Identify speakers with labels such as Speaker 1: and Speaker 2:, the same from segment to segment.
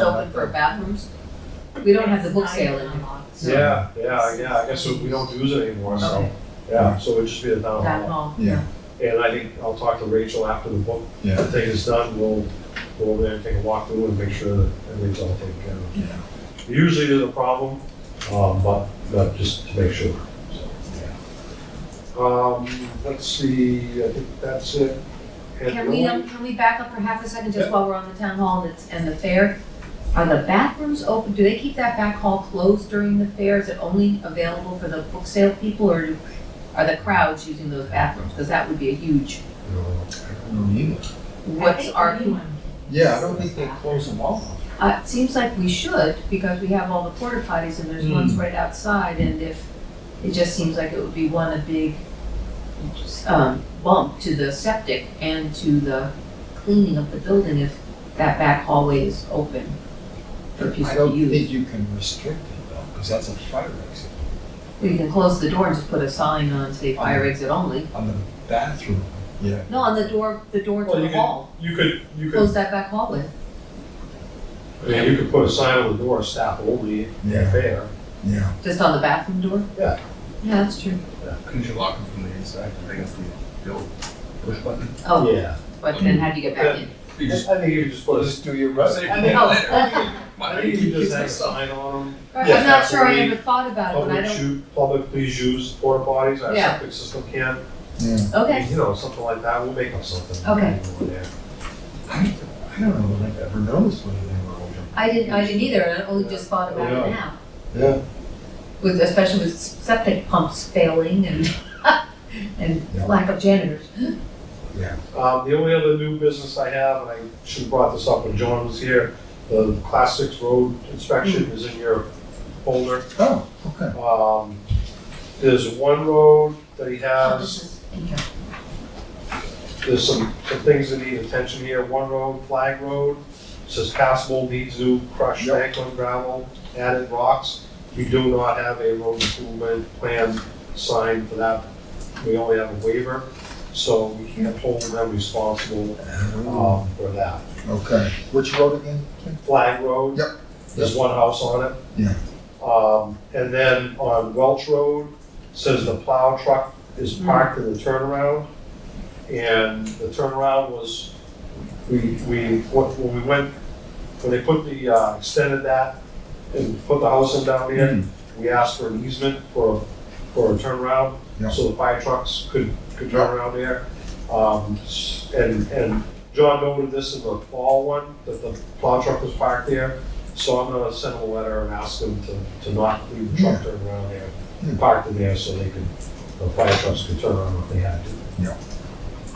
Speaker 1: open for bathrooms. We don't have the book sale in there.
Speaker 2: Yeah, yeah, yeah, I guess we don't use it anymore, so,
Speaker 1: Okay,
Speaker 2: yeah, so it would just be the town
Speaker 1: town
Speaker 2: hall.
Speaker 1: hall.
Speaker 3: Yeah.
Speaker 2: And I think I'll talk to Rachel after the book
Speaker 3: Yeah,
Speaker 2: thing is done, we'll go over there and take a walk through and make sure that everything's all taken care of.
Speaker 3: yeah.
Speaker 2: Usually there's a problem, um, but, but just to make sure, so, yeah. Um, let's see, I think that's it. And
Speaker 1: Can
Speaker 2: the
Speaker 1: we,
Speaker 2: only-
Speaker 1: um, can we back up for half a second, just while we're on the town hall and it's, and the fair? Are the bathrooms open, do they keep that back hall closed during the fair? Is it only available for the book sale people, or do- are the crowds using those bathrooms? Because that would be a huge,
Speaker 2: No.
Speaker 3: No either.
Speaker 1: what's our,
Speaker 3: Yeah, I don't think they close them all.
Speaker 1: uh, it seems like we should, because we have all the porta potties and there's
Speaker 2: Mm.
Speaker 1: ones right outside, and if, it just seems like it would be one, a big, um, bump to the septic and to the cleaning of the building if that back hallway is open for
Speaker 3: I
Speaker 1: people
Speaker 3: don't
Speaker 1: to use.
Speaker 3: think you can restrict it though, because that's a fire exit
Speaker 1: We can close the door and just put a sign on, say fire exit only.
Speaker 3: on the bathroom. Yeah.
Speaker 1: No, on the door, the door
Speaker 2: Well,
Speaker 1: to the
Speaker 2: you could-
Speaker 1: hall,
Speaker 2: You could, you could,
Speaker 1: close that back hallway.
Speaker 2: yeah, you could put a sign on the door, staff only,
Speaker 3: Yeah,
Speaker 2: fair.
Speaker 3: yeah.
Speaker 1: Just on the bathroom door?
Speaker 2: Yeah.
Speaker 1: Yeah, that's true.
Speaker 4: Couldn't you lock them from the inside? I think it's the, the old push button.
Speaker 1: Oh,
Speaker 2: Yeah.
Speaker 1: but then how do you get back in?
Speaker 4: You
Speaker 2: I
Speaker 4: just,
Speaker 2: think you could just put a
Speaker 3: Just do your
Speaker 4: Save
Speaker 3: rest.
Speaker 4: it
Speaker 2: think-
Speaker 4: for later.
Speaker 1: Oh,
Speaker 4: Why
Speaker 2: I
Speaker 4: do you
Speaker 2: think you
Speaker 4: keep
Speaker 2: just
Speaker 4: this
Speaker 2: have a
Speaker 4: myself?
Speaker 2: sign on them.
Speaker 1: I'm not sure I
Speaker 2: Yeah.
Speaker 1: ever thought about it, but I
Speaker 2: Public
Speaker 1: don't,
Speaker 2: shoot, public please use porta potties, our
Speaker 1: Yeah.
Speaker 2: septic system can't.
Speaker 3: Yeah.
Speaker 1: okay,
Speaker 2: You know, something like that, we'll make up something.
Speaker 1: Okay.
Speaker 2: Yeah.
Speaker 3: I, I don't know, that I've ever noticed when they were open.
Speaker 1: I didn't, I didn't either, and I only just thought about it
Speaker 2: Yeah.
Speaker 1: now.
Speaker 3: Yeah.
Speaker 1: With, especially with septic pumps failing and, and
Speaker 3: Yeah.
Speaker 1: lack of janitors.
Speaker 2: Um, the only other new business I have, and I should have brought this up when John was here, the class six road
Speaker 1: Hmm.
Speaker 2: inspection is in your folder.
Speaker 3: Oh, okay.
Speaker 2: Um, there's one road that he
Speaker 1: Oh, this
Speaker 2: has,
Speaker 1: is in here.
Speaker 2: there's some, some things that need attention here, one road, flag road, says passable, needs new crushed
Speaker 3: Yep.
Speaker 2: bank on gravel, added rocks. We do not have a road improvement plan signed for that, we only have a waiver, so we can't hold them responsible,
Speaker 3: Oh,
Speaker 2: um, for that.
Speaker 3: Okay. Which road again?
Speaker 2: Flag Road.
Speaker 3: Yep.
Speaker 2: There's one house on it.
Speaker 3: Yeah.
Speaker 2: Um, and then on Welch Road, says the plow truck is parked in the turnaround. And the turnaround was, we, we, when we went, when they put the, uh, extended that and put the house in down
Speaker 3: Mm-hmm.
Speaker 2: there, we asked for an easement for, for a turnaround,
Speaker 3: Yeah.
Speaker 2: so the fire trucks could, could turn around there. Um, s- and, and John noted this in the fall one, that the plow truck was parked there, so I'm gonna send him a letter and ask him to, to not leave the truck turned around there,
Speaker 3: Yeah.
Speaker 2: parked in there so they could, the fire trucks could turn around if they had to.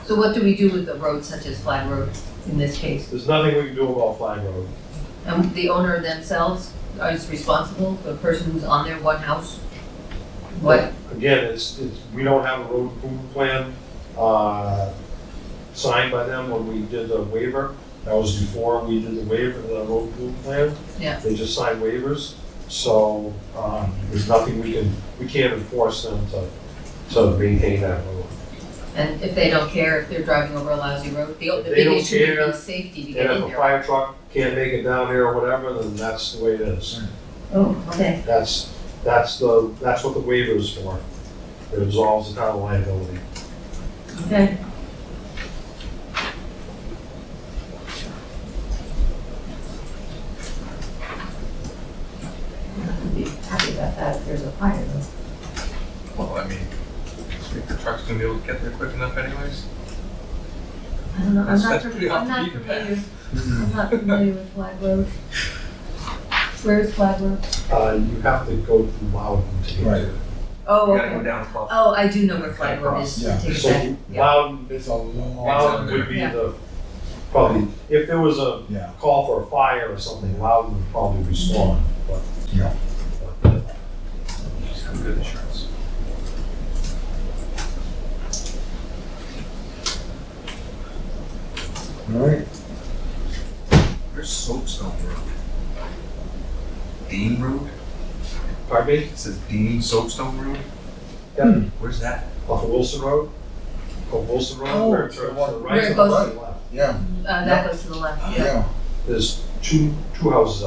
Speaker 1: So what do we do with the roads such as Flag Road in this case?
Speaker 2: There's nothing we can do about Flag Road.
Speaker 1: And the owner themselves is responsible, the person who's on their one house? What,
Speaker 2: Again, it's, it's, we don't have a road improvement plan, uh, signed by them when we did the waiver. That was before we did the waiver, the road improvement plan.
Speaker 1: Yeah.
Speaker 2: They just signed waivers, so, um, there's nothing we can, we can't enforce them to, to maintain that road.
Speaker 1: and if they don't care, if they're driving over a lousy road, the, the
Speaker 2: They
Speaker 1: big
Speaker 2: don't
Speaker 1: issue would
Speaker 2: care.
Speaker 1: be safety to
Speaker 2: And
Speaker 1: get in
Speaker 2: if a
Speaker 1: there.
Speaker 2: fire truck can't make it down here or whatever, then that's the way it is.
Speaker 1: Oh, okay.
Speaker 2: That's, that's the, that's what the waiver is for. It absolves the town liability.
Speaker 1: Okay. I'd be happy about that if there's a fire though.
Speaker 4: Well, I mean, you think the truck's gonna be able to get there quick enough anyways?
Speaker 1: I don't know, I'm
Speaker 4: That's-
Speaker 1: not,
Speaker 4: that's
Speaker 1: fam-
Speaker 4: pretty
Speaker 1: I'm
Speaker 4: off the
Speaker 1: not
Speaker 4: beaten
Speaker 1: familiar,
Speaker 3: Hmm.
Speaker 1: I'm not familiar with Flag Road. Where is Flag Road?
Speaker 2: Uh, you have to go through Loudon to get
Speaker 3: Right.
Speaker 2: to it.
Speaker 1: Oh,
Speaker 4: You gotta go
Speaker 1: okay.
Speaker 4: down across.
Speaker 1: Oh, I do know where Flag Road is,
Speaker 3: Yeah.
Speaker 1: take it back.
Speaker 2: So
Speaker 1: Yeah.
Speaker 2: Loudon,
Speaker 3: It's a long,
Speaker 2: Loudon would be
Speaker 1: Yeah.
Speaker 2: the, probably, if there was a
Speaker 3: yeah.
Speaker 2: call for a fire or something, Loudon would probably respond, but.
Speaker 3: Yeah.
Speaker 4: Just have good insurance.
Speaker 3: All right.
Speaker 4: Where's Soapstone Road? Dean Road?
Speaker 2: Pardon me,
Speaker 4: It says Dean Soapstone Road?
Speaker 2: Yeah.
Speaker 4: Where's that?
Speaker 2: off of Wilson Road, off Wilson Road,
Speaker 3: Oh,
Speaker 2: where it turns to the right.
Speaker 1: Where it goes-
Speaker 2: left.
Speaker 3: Yeah,
Speaker 1: Uh, that goes to the left, yeah.
Speaker 3: yeah.
Speaker 2: There's two, two houses